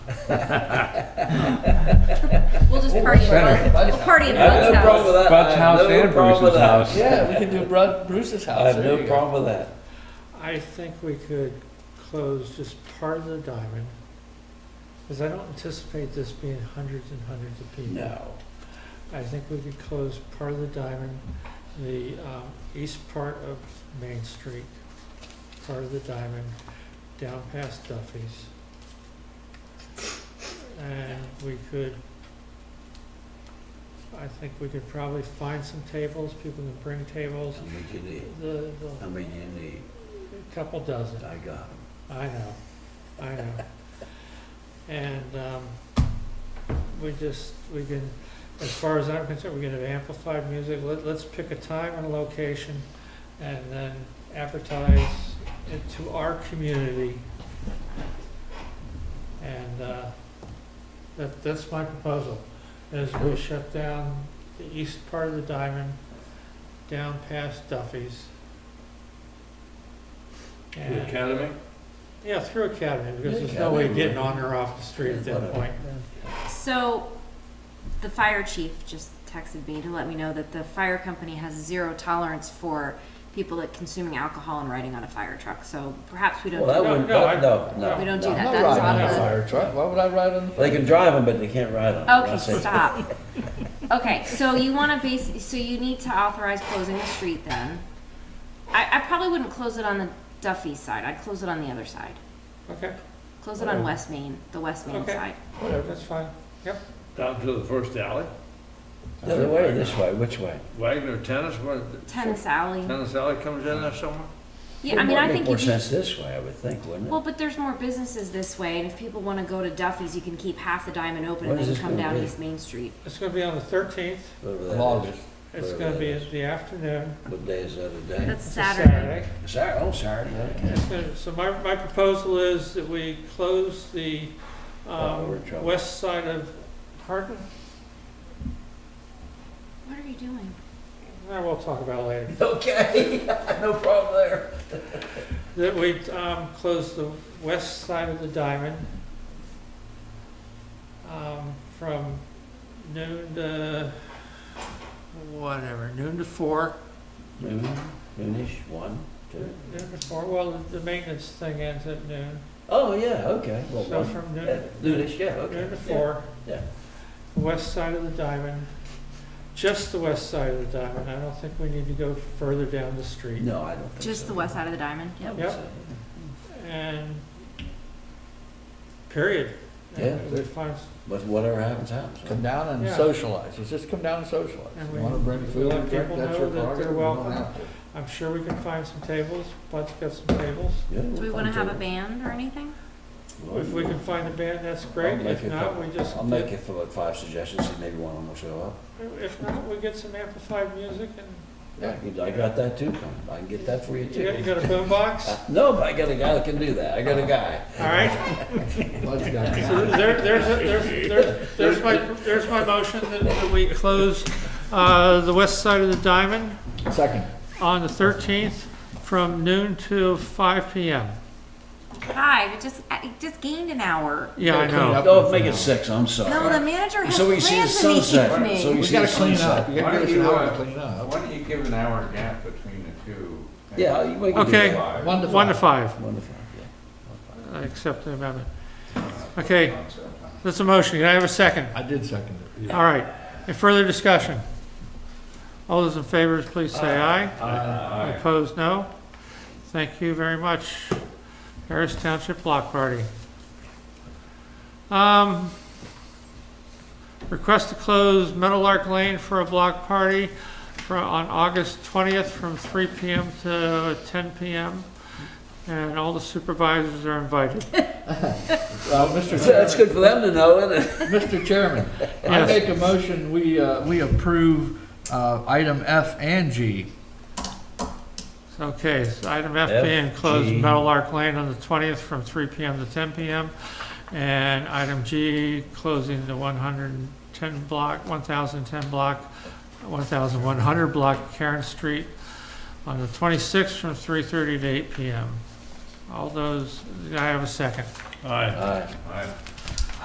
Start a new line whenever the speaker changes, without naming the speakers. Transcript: We'll
Oh,
just party in
Better.
Bud, we'll party in
I have
Bud's
no problem with
house.
that.
Bud's
I have
house
no
and
problem with
Bruce's
that.
house.
Yeah,
Yeah, we can do Bru- Bruce's house.
I have
There
no
you go.
problem with that.
I think we could close just part of the diamond, because I don't anticipate this being hundreds and hundreds of people.
No.
I think we could close part of the diamond, the um, east part of Main Street, part of the diamond, down past Duffy's. And we could, I think we could probably find some tables, people can bring tables,
How many you need?
the,
How many you need?
the couple dozen.
I got 'em.
I know, I know. And um, we just, we can, as far as I'm concerned, we're gonna have amplified music. Let- Let's pick a time and a location and then advertise it to our community. And uh, that, that's my proposal, is we shut down the east part of the diamond, down past Duffy's.
The
And-
academy?
yeah, through Academy, because
Yeah,
there's no way of
Academy.
getting on or off the street at that point.
So, the fire chief just texted me to let me know that the fire company has zero tolerance for people that consuming alcohol and riding on a fire truck, so perhaps we don't.
Well, that
No,
wouldn't,
no, I-
that- no, no.
We don't do
no.
that,
I'm not
that's
riding
on
on a
the-
fire truck. Why would I ride on the
They
fire?
can drive them, but they can't ride on 'em.
Okay,
That's it.
stop. Okay, so you wanna base, so you need to authorize closing the street then. I, I probably wouldn't close it on the Duffy side, I'd close it on the other side.
Okay,
Close it on West Main, the West Main
Okay.
side.
Whatever.
that's fine.
Down to the first alley?
The other way or this way? Which way?
Wagner Tennis, what,
Tennis alley.
tennis alley comes in there somewhere?
Yeah, I mean, I think
More
if you,
sense this way, I would think, wouldn't it?
well, but there's more businesses this way, and if people wanna go to Duffy's, you can keep half the diamond open
What
and
is
then
this
come
gonna
down
be?
East Main Street.
It's gonna be on the thirteenth,
Whatever that
Of August.
is.
it's
Whatever
gonna
that
be
is.
in the afternoon,
What day is that today?
That's
it's a
Saturday.
Saturday.
Saturday, oh, Saturday, okay.
It's gonna- So my, my proposal is that we close the,
Oh, we're in
um,
trouble.
west side of Hardin.
What are you doing?
That we'll talk about later.
Okay, no problem there.
That we, um, close the west side of the diamond, um, from noon to, whatever, noon to four.
Noon, noonish, one, two.
Noon before, well, the the maintenance thing ends at noon,
Oh, yeah, okay. Well,
so
one,
from
yeah,
noon,
noonish, yeah, okay.
noon to
yeah.
four.
yeah.
West side of the diamond, just the west side of the diamond, I don't think we need to go further down the street.
No, I don't think so.
Just the west side of the diamond, yep.
Yep. And, period.
Yeah.
And we find,
But whatever happens, happens. huh?
Come down and
Yeah.
socialize. It's just come down and socialize.
And
You
we-
want to bring
we
food
let
and drink,
people
that's
know
your
that they're
prerogative. You don't
welcome.
have to.
I'm sure we can find some tables, Bud's got some tables.
Yeah,
Do we
we'll
wanna
find
have a
something.
band or anything?
Well,
If we can find a band, that's great,
Oh, I'll make
if
it
not,
up.
we just,
I'll make it for like five suggestions, and maybe one of them will show up.
if not, we get some amplified music and,
Yeah.
I got that too, Con. I can get that for you
you got, you
too.
got a boombox,
Uh, No, but I got a guy that can do that, I got a guy.
all right?
Bud's got it.
So there, there's, a- there's, there's, there's my, there's my motion that, that we close, uh, the west side of the diamond
Second.
on the thirteenth from noon to five P M.
Hi, we just, I just gained an hour.
Yeah, I know.
No, make it six, I'm
No, the
sorry.
manager has
So we see the
plans in the
sunset, so
evening.
we
We
see the
gotta clean
sunset.
up. You
Why
gotta
don't
give us an
you,
hour to
uh,
clean up.
Why don't you give an hour gap between the two?
Yeah, you- we can do
Okay.
that.
One to
One to
five.
five,
Wonderful, yeah.
I accept the amendment. Okay,
Okay.
that's a motion, can I have a second?
I did second it.
All right, any further discussion? All those in favor, please say aye. Aye. Opposed, no. Thank you very much. Harris Township Block Party. Um, Request to close Meadowlark Lane for a block party for, on August 20th from 3 PM to 10 PM. And all the supervisors are invited.
Uh, Mr.
So That's
Chairman,
good for them to know, isn't it?
Mr. Chairman, I
Yes.
make a motion, we, uh, we approve, uh, item F and G.
Okay, so item F
F,
being closed
G.
Meadowlark Lane on the 20th from 3 PM to 10 PM. And item G, closing the 110 block, 1,010 block, 1,100 block Karen Street on the 26th from 3:30 to 8 PM. All those, I have a second.
Aye.
Aye.